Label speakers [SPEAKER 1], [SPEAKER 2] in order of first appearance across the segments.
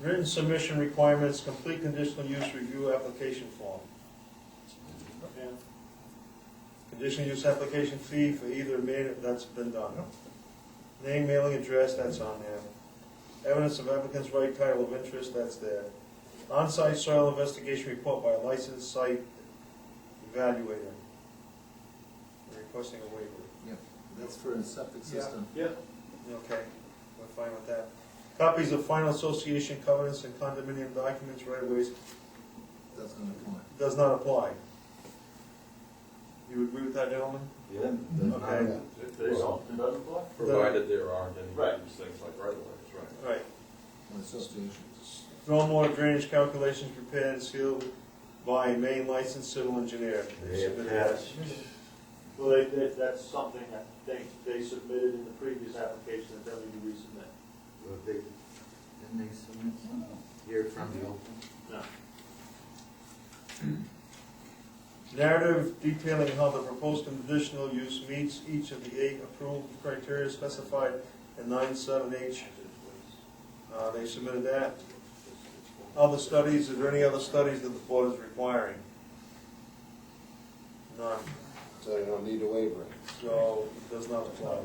[SPEAKER 1] Written submission requirements, complete conditional use review application form. And Conditional use application fee for either man, that's been done. Name, mailing address, that's on there. Evidence of applicant's right title of interest, that's there. On-site soil investigation report by a licensed site evaluator. Requesting a waiver.
[SPEAKER 2] Yep, that's for a septic system.
[SPEAKER 3] Yep.
[SPEAKER 1] Okay, we're fine with that. Copies of final association covenants and condominium documents right of ways
[SPEAKER 2] That's gonna come in.
[SPEAKER 1] does not apply. You agree with that, gentlemen?
[SPEAKER 4] Yeah.
[SPEAKER 1] Okay.
[SPEAKER 4] They don't, it doesn't apply?
[SPEAKER 5] Provided there aren't any
[SPEAKER 4] Right.
[SPEAKER 5] things like right of ways, right?
[SPEAKER 1] All right,
[SPEAKER 2] Or associations.
[SPEAKER 1] stormwater drainage calculations prepared and sealed by a main licensed civil engineer. They submitted that.
[SPEAKER 4] Well, they, they, that's something that they, they submitted in the previous application that they'll need to resubmit.
[SPEAKER 6] Well, they, didn't they submit something here from the open?
[SPEAKER 4] No.
[SPEAKER 1] Narrative detailing how the proposed conditional use meets each of the eight approved criteria specified in nine seven H. Uh, they submitted that. Other studies, is there any other studies that the board is requiring? None,
[SPEAKER 7] So you don't need a waiver.
[SPEAKER 1] so it does not apply.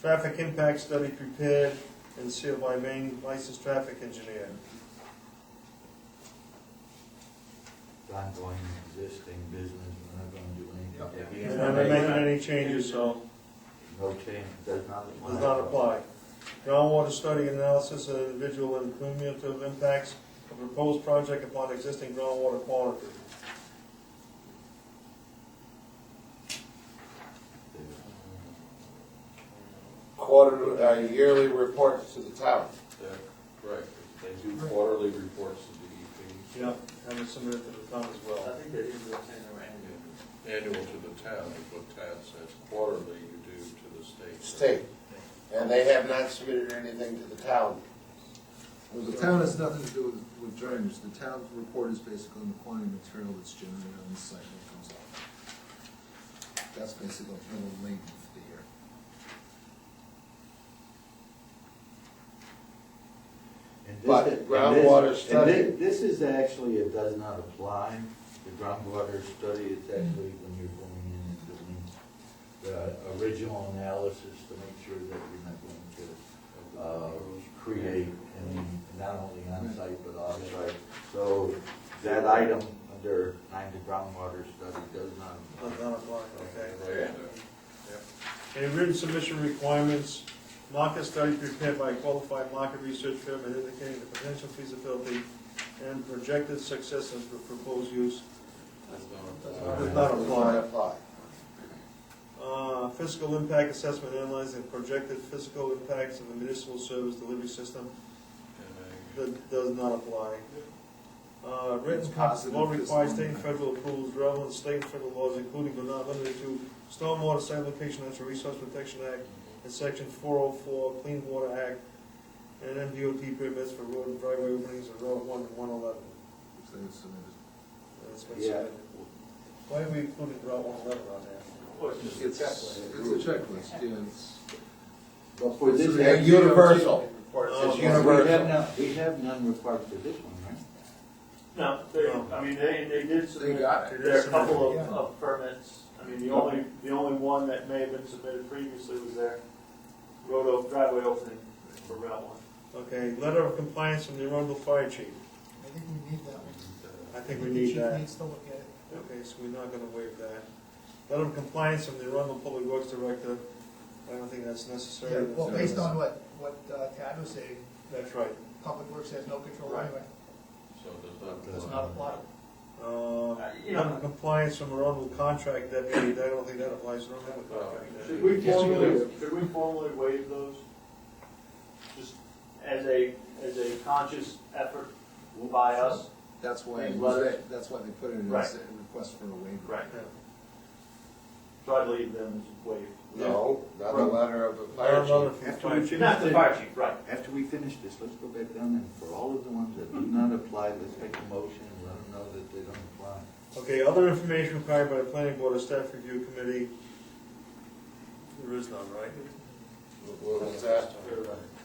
[SPEAKER 1] Traffic impact study prepared and sealed by main licensed traffic engineer.
[SPEAKER 6] It's ongoing existing business, we're not gonna do anything.
[SPEAKER 1] And
[SPEAKER 6] different.
[SPEAKER 1] I'm not making any changes, so
[SPEAKER 6] No change, does not apply.
[SPEAKER 1] does not apply. Groundwater study analysis of individual and cumulative impacts of proposed project upon existing groundwater quality.
[SPEAKER 7] Quarterly, uh, yearly reports to the town.
[SPEAKER 5] They're- Right, they do quarterly reports to E DEP,
[SPEAKER 1] Yeah. And it's submitted to the town as
[SPEAKER 4] I
[SPEAKER 1] well.
[SPEAKER 4] think they did the same around.
[SPEAKER 5] annual to the town, is what Tad says, quarterly you do to the state.
[SPEAKER 7] State. And they have not submitted anything to the town.
[SPEAKER 2] Well, the town has nothing to do with, with drainage, the town's report is basically on the quantity of material that's generated on the site when it comes out. That's basically a little late for the year.
[SPEAKER 6] And this
[SPEAKER 7] But
[SPEAKER 6] is- and this-
[SPEAKER 7] groundwater
[SPEAKER 6] and thi-
[SPEAKER 7] study-
[SPEAKER 6] This is actually, it does not apply, the groundwater study, it's actually when you're going in and doing the original analysis to make sure that you're not going to uh, create, and not only on-site but off-site. So that item under nine, the groundwater study does not.
[SPEAKER 1] Does not apply, okay.
[SPEAKER 5] Right, uh,
[SPEAKER 1] A written submission requirements, market study prepared by a qualified market research firm and indicating the potential feasibility and projected success of the proposed use.
[SPEAKER 5] that's not-
[SPEAKER 1] Does not apply.
[SPEAKER 7] Apply.
[SPEAKER 1] Uh, Fiscal impact assessment analyzing projected fiscal impacts of the municipal service delivery system.
[SPEAKER 5] and
[SPEAKER 1] That does not apply. Uh, Written
[SPEAKER 2] It's positive
[SPEAKER 1] law
[SPEAKER 2] this
[SPEAKER 1] requires
[SPEAKER 2] one.
[SPEAKER 1] state and federal approvals relevant to state and federal laws, including but not limited to Stormwater Site Location Natural Resource Protection Act and Section 404 Clean Water Act, and MDOT permits for road and driveway openings on Route 1 and 111.
[SPEAKER 2] If they submitted.
[SPEAKER 1] And it's been
[SPEAKER 6] Yeah.
[SPEAKER 1] submitted. Why are we including Route 111 on there?
[SPEAKER 4] Well, it's just a
[SPEAKER 2] It's, it's
[SPEAKER 4] checklist.
[SPEAKER 2] a checklist, yeah, it's.
[SPEAKER 6] But for this.
[SPEAKER 7] They're universal.
[SPEAKER 1] Oh,
[SPEAKER 7] It's
[SPEAKER 1] we
[SPEAKER 6] We have
[SPEAKER 7] universal.
[SPEAKER 6] none, we have none required for this one, right?
[SPEAKER 4] No, they, I mean, they, they did
[SPEAKER 2] They
[SPEAKER 4] submit,
[SPEAKER 2] got it.
[SPEAKER 4] there are a couple of,
[SPEAKER 2] Yeah.
[SPEAKER 4] of permits. I mean, the only, the only one that may have been submitted previously was their road, o- driveway opening for Route One.
[SPEAKER 1] Okay, letter of compliance from the Arundel Fire Chief.
[SPEAKER 8] I think we need that one.
[SPEAKER 1] I think we need that.
[SPEAKER 8] Chief needs to look at it.
[SPEAKER 1] Okay, so we're not gonna waive that. Letter of compliance from the Arundel Public Works Director, I don't think that's
[SPEAKER 8] Yeah,
[SPEAKER 1] necessary.
[SPEAKER 8] well, based on what, what uh, Tad was saying,
[SPEAKER 1] That's right.
[SPEAKER 8] Public Works has no control
[SPEAKER 4] Right.
[SPEAKER 8] anyway,
[SPEAKER 5] So does that.
[SPEAKER 8] does not apply.
[SPEAKER 1] Uh,
[SPEAKER 4] you
[SPEAKER 1] letter
[SPEAKER 4] know-
[SPEAKER 1] of compliance from Arundel Contract Deputy, I don't think that applies, we don't have a contract
[SPEAKER 4] Should
[SPEAKER 1] deputy.
[SPEAKER 4] we formally, should we formally waive those? Just as a, as a conscious effort by us?
[SPEAKER 2] That's why,
[SPEAKER 4] They
[SPEAKER 2] it
[SPEAKER 4] love
[SPEAKER 2] was- that's why they put it in
[SPEAKER 4] Right.
[SPEAKER 2] as a request for a waiver.
[SPEAKER 4] Right.
[SPEAKER 1] Yeah.
[SPEAKER 4] So I'd leave them as waived.
[SPEAKER 7] No, not a letter of the fire
[SPEAKER 1] Letter
[SPEAKER 7] chief.
[SPEAKER 1] of
[SPEAKER 6] After we
[SPEAKER 1] compliance.
[SPEAKER 6] finish
[SPEAKER 4] Not the
[SPEAKER 6] this,
[SPEAKER 4] fire chief, right.
[SPEAKER 6] after we finish this, let's go back down and for all of the ones that do not apply, let's make a motion and let them know that they don't apply.
[SPEAKER 1] Okay, other information required by the planning board or staff review committee. There is none, right?
[SPEAKER 7] What was that?
[SPEAKER 4] They're, uh,